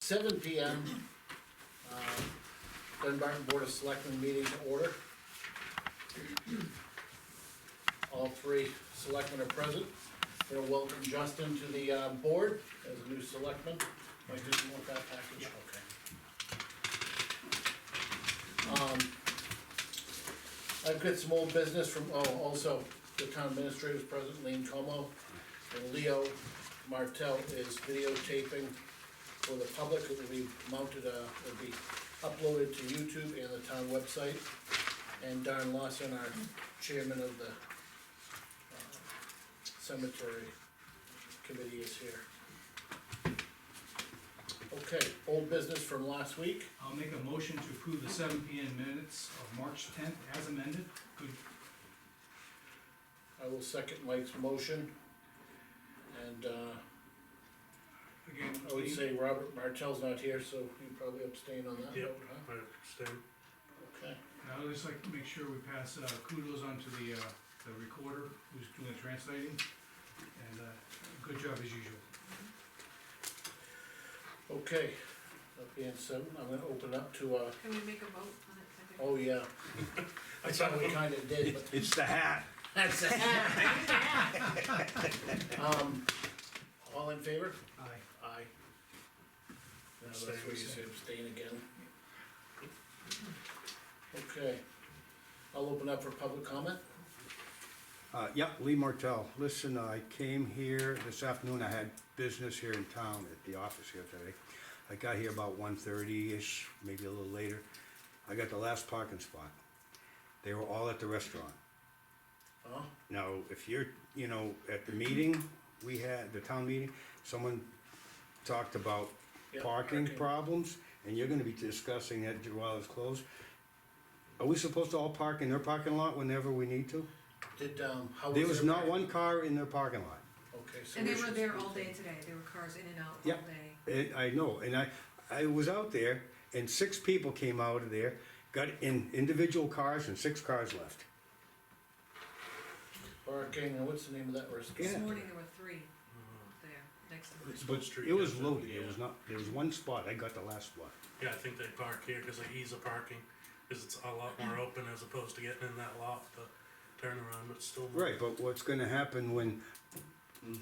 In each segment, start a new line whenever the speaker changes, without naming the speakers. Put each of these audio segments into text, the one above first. seven P M. uh, Dunbarton Board of Selectmen meeting to order. All three selectmen are present. They'll welcome Justin to the, uh, board as a new selectman. I just want that package, okay. Um, I've got some old business from, oh, also, the town administrator's present, Lean Como. And Leo Martell is videotaping for the public, it will be mounted, uh, it'll be uploaded to YouTube and the town website. And Darren Lawson, our chairman of the uh, cemetery committee is here. Okay, old business from last week,
I'll make a motion to approve the seven P M minutes of March tenth as amended. Good,
I will second Mike's motion. And, uh,
again,
I would
Lee,
say Robert Martell's not here, so you probably abstain on that
Yep.
vote, huh?
I understand.
Okay,
and I would just like to make sure we pass uh, kudos on to the, uh, the recorder who's doing the translating. And, uh, good job as usual.
okay, that being said, I'm gonna open up to, uh,
Can we make a vote on it? second?
oh yeah,
I
Well, we kinda did, but.
It's the hat.
That's it. Um, all in favor?
Aye.
Aye. Now, that's where you say abstain again. Okay, I'll open up for public comment.
Uh, yep, Lee Martell. Listen, I came here this afternoon. I had business here in town at the office here today. I got here about 1.30ish, maybe a little later. I got the last parking spot. They were all at the restaurant.
Huh?
Now, if you're, you know, at the meeting, we had, the town meeting, someone talked about
Yeah,
parking
parking.
problems, and you're gonna be discussing it while it's closed. Are we supposed to all park in their parking lot whenever we need to?
Did, um, how was?
There was not
everybody?
one car in their parking lot.
Okay, so.
And they
we
were
should
there
speak
all
then.
day today, there were cars in and out
Yeah.
all day.
It, I know, and I, I was out there, and six people came out of there, got in individual cars, and six cars left.
Parking, and what's the name of that
This
restaurant?
morning there were three
Uh,
there, next to the
But
Street
it was
does that,
loaded. It
yeah.
was not. There was one spot. I got the last spot.
Yeah, I think they park here because they ease the parking, because it's a lot more open as opposed to getting in that lot, the turnaround, but still.
Right, but what's gonna happen when,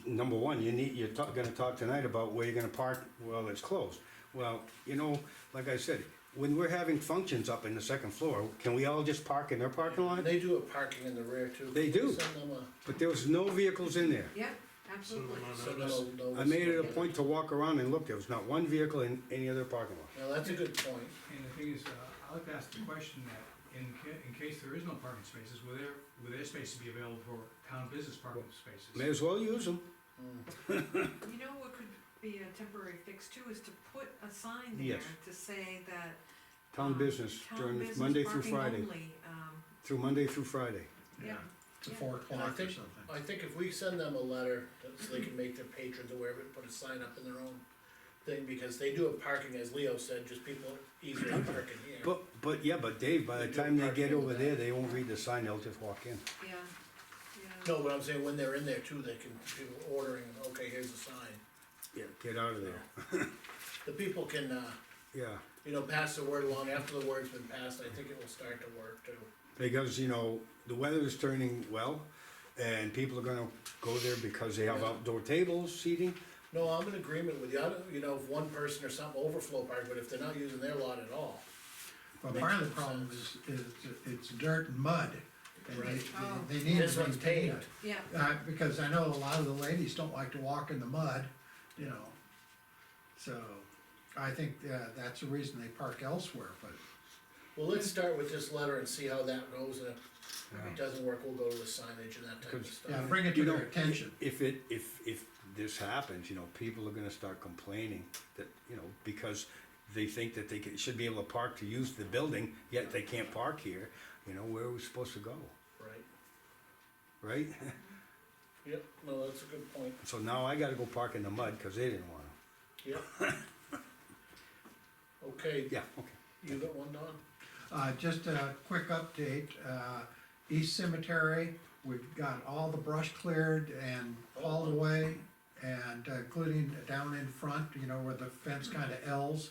number one, you need, you're talk, gonna talk tonight about where you're gonna park while it's closed. Well, you know, like I said, when we're having functions up in the second floor, can we all just park in their parking lot?
They do a parking in the rear too.
They do.
Send them a,
But there was no vehicles in there.
Yeah,
So
absolutely.
I'm on
send
notice.
them a notice.
I made it a point to walk around and look, there was not one vehicle in any other parking lot.
Now, that's a good point.
And the thing is, uh, I'd like to ask the question that in ca- in case there is no parking spaces, will there, will there spaces be available for town business parking spaces?
May as well use them.
You know what could be a temporary fix too, is to put a sign there
Yes.
to say that.
Town
um,
business
town
during
business
Monday through
parking
Friday,
only, um,
through Monday through Friday.
yeah,
to
Yeah.
four
And I
o'clock or
think,
something.
I think if we send them a letter, that- so they can make their patrons aware of it, put a sign up in their own thing, because they do have parking, as Leo said, just people easily parking here.
But, but, yeah, but Dave, by the
They do
time they
parking
get
in the
over
back.
there, they won't read the sign, they'll just walk in.
yeah, yeah.
No, but I'm saying when they're in there too, they can, people ordering, okay, here's a sign.
Yeah, get out of there.
The people can, uh,
Yeah,
you know, pass the word along, after the word's been passed, I think it will start to work too.
because, you know, the weather is turning well, and people are gonna go there because they have outdoor tables, seating.
No, I'm in agreement with you, I don't, you know, if one person or something overflow park, but if they're not using their lot at all,
But part of the problem is, is it's dirt and mud, and
Right.
Oh.
they, they- they need
this
to
one's
maintain
paved.
it.
Yeah,
Uh, because I know a lot of the ladies don't like to walk in the mud, you know, so I think, uh, that's the reason they park elsewhere, but
Well, let's start with this letter and see how that goes, and if it doesn't work, we'll go to the signage and that type of
Good.
Yeah,
stuff.
bring it
You
to their
know,
attention.
If it, if, if this happens, you know, people are gonna start complaining that, you know, because they think that they can- should be able to park to use the building, yet they can't park here, you know, where are we supposed to go,
Right,
right?
yep, no, that's a good point,
So now I gotta go park in the mud, cause they didn't wanna.
yep. Okay,
Yeah, okay.
you got one, Don?
Uh, just a quick update, uh,
Oh.
East Cemetery, we've got all the brush cleared and hauled away, And uh, including down in front, you know, where the fence kinda L's,